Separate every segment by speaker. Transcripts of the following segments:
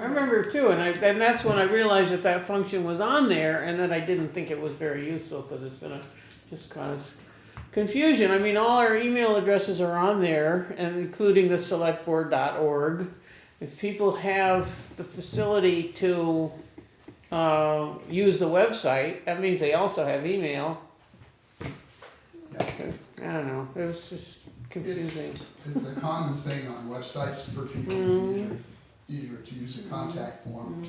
Speaker 1: remember too, and I, and that's when I realized that that function was on there, and that I didn't think it was very useful, cause it's gonna just cause confusion, I mean, all our email addresses are on there, and including the selectboard.org. If people have the facility to, uh, use the website, that means they also have email. I don't know, it was just confusing.
Speaker 2: It's a common thing on websites for people to either- either to use a contact form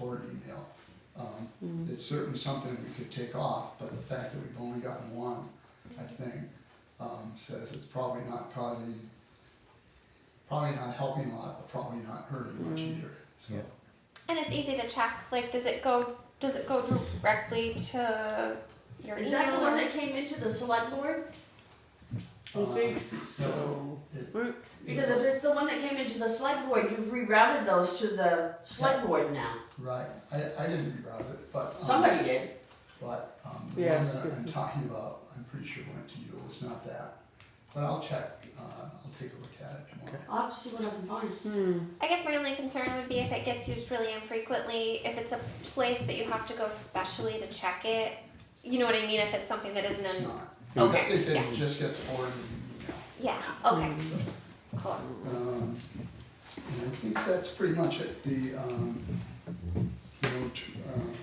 Speaker 2: or an email. Um, It's certainly something we could take off, but the fact that we've only gotten one, I think, um, says it's probably not causing, probably not helping a lot, but probably not hurting much either, so.
Speaker 3: And it's easy to check. Like, does it go? Does it go directly to your
Speaker 4: Is
Speaker 3: email?
Speaker 4: that the one
Speaker 3: or-
Speaker 4: that came into the select board?
Speaker 1: I
Speaker 2: uh,
Speaker 1: think so.
Speaker 4: Because if it's the one that came into the select board, you've rerouted those to the select board now.
Speaker 2: Right, I, I didn't reroute it, but. um,
Speaker 4: Somebody did.
Speaker 2: But, um, the
Speaker 1: Yeah,
Speaker 2: one
Speaker 1: it's
Speaker 2: that I'm
Speaker 1: good.
Speaker 2: talking about, I'm pretty sure went to you, it was not that. But I'll check, uh, I'll take a look at it tomorrow.
Speaker 4: I'll have to see what I can find.
Speaker 3: I guess my only concern would be if it gets used really infrequently, if it's a place that you have to go specially to check it. You know what I mean? If it's something that isn't
Speaker 2: It's
Speaker 3: in.
Speaker 2: not.
Speaker 3: Okay,
Speaker 2: It,
Speaker 3: yeah.
Speaker 2: it just gets forwarded in
Speaker 3: Yeah, okay,
Speaker 2: an email, so,
Speaker 4: Mm-hmm.
Speaker 3: cool.
Speaker 2: um, and I think that's pretty much it, the, um, you know, t- um,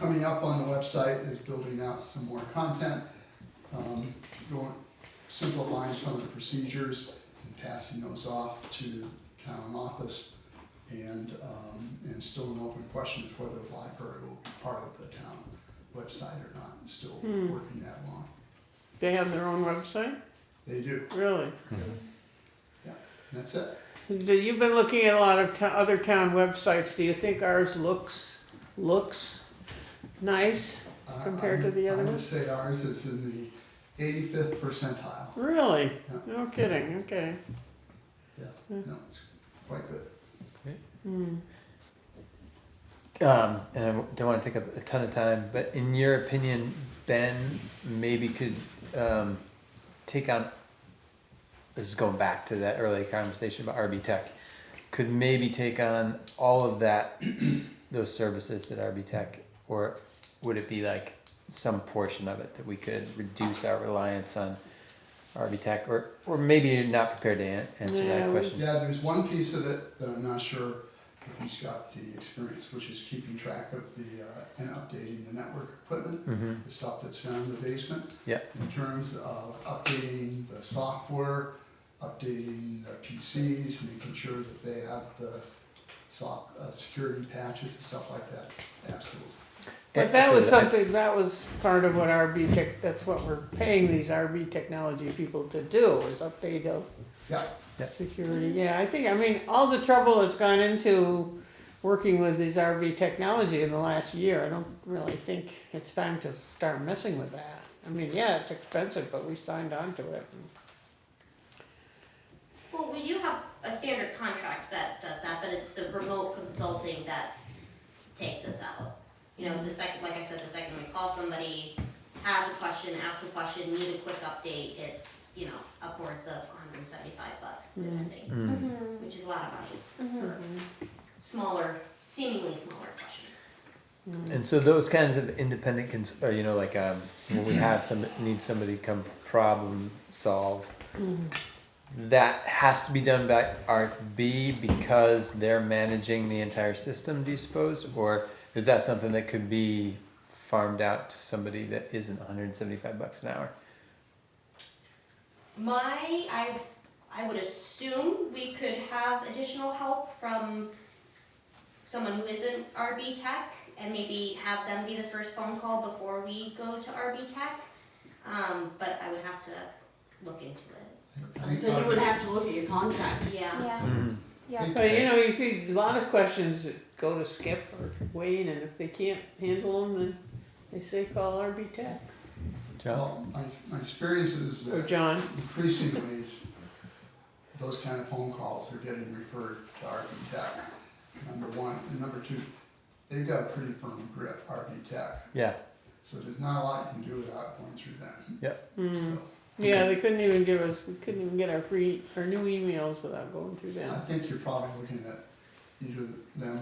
Speaker 2: coming up on the website is building out some more content, um, going, simplifying some of the procedures and passing those off to town office. And, um, and still an open question is whether the library will be part of the town website or not, still working that long.
Speaker 1: They have their own website,
Speaker 2: They do,
Speaker 1: really?
Speaker 2: and that's it.
Speaker 1: Do- You've been looking at a lot of to- other town websites, do you think ours looks, looks nice?
Speaker 2: I-
Speaker 1: Compared to
Speaker 2: I'm-
Speaker 1: the other
Speaker 2: I would
Speaker 1: ones?
Speaker 2: say ours is in the eighty-fifth percentile,
Speaker 1: Really? No kidding, okay.
Speaker 2: yeah,
Speaker 1: Mm.
Speaker 2: no, it's quite good.
Speaker 5: Um, and I don't want to take up a ton of time, but in your opinion, Ben maybe could um, take on. This is going back to that early conversation about RB Tech. Could maybe take on all of that, those services that RB Tech, or would it be like some portion of it that we could reduce our reliance on RB Tech, or or maybe you're not prepared to an- answer
Speaker 1: Yeah,
Speaker 5: that
Speaker 1: we-
Speaker 5: question.
Speaker 2: Yeah, there's one piece of it that I'm not sure if he's got the experience, which is keeping track of the, uh, and updating the network equipment,
Speaker 5: Mm-hmm.
Speaker 2: the stuff that's down in the basement.
Speaker 5: Yeah.
Speaker 2: In terms of updating the software, updating the PCs, making sure that they have the soft, uh, security patches and stuff like that, absolutely.
Speaker 1: But that was something, that was part of what RB Tech, that's what we're paying these RB technology people to do, is update the
Speaker 2: Yeah,
Speaker 1: security. Yeah, I think, I mean, all the trouble that's gone into working with these RB technology in the last year, I don't really think it's time to start messing with that. I mean, yeah, it's expensive, but we signed on to it.
Speaker 6: Well, we do have a standard contract that does that, but it's the remote consulting that takes us out. You know, the second, like I said, the second we call somebody, have a question, ask a question, need a quick update, it's, you know, upwards of hundred and seventy-five bucks depending, which is a lot of money for smaller, seemingly smaller questions.
Speaker 5: And so those kinds of independent, cons- or you know, like um, when we have some need somebody to come problem solve, that has to be done by RB because they're managing the entire system. Do you suppose, or is that something that could be farmed out to somebody that isn't 175 bucks an hour?
Speaker 6: My, I, I would assume we could have additional help from s- someone who isn't RB Tech and maybe have them be the first phone call before we go to RB Tech. Um, but I would have to look into it,
Speaker 2: I think
Speaker 4: So you would
Speaker 2: RB
Speaker 4: have to look at your contract.
Speaker 6: yeah.
Speaker 3: Yeah, yeah.
Speaker 1: But you know, you see a lot of questions that go to Skip or Wayne, and if they can't handle them, then they say call RB Tech
Speaker 5: John,
Speaker 2: Well, my, my experience is
Speaker 1: or
Speaker 2: that
Speaker 1: John.
Speaker 2: increasingly, s- those kind of phone calls are getting referred to RV Tech, number one. And number two, they've got a pretty firm grip, RV Tech,
Speaker 5: yeah,
Speaker 2: so there's not a lot you can do without going through them.
Speaker 5: Yep.
Speaker 1: Mm,
Speaker 2: So
Speaker 1: Hmm. Yeah, they couldn't even give us, we couldn't even get our free, our new emails without going through
Speaker 2: I
Speaker 1: them.
Speaker 2: think you're probably looking at either them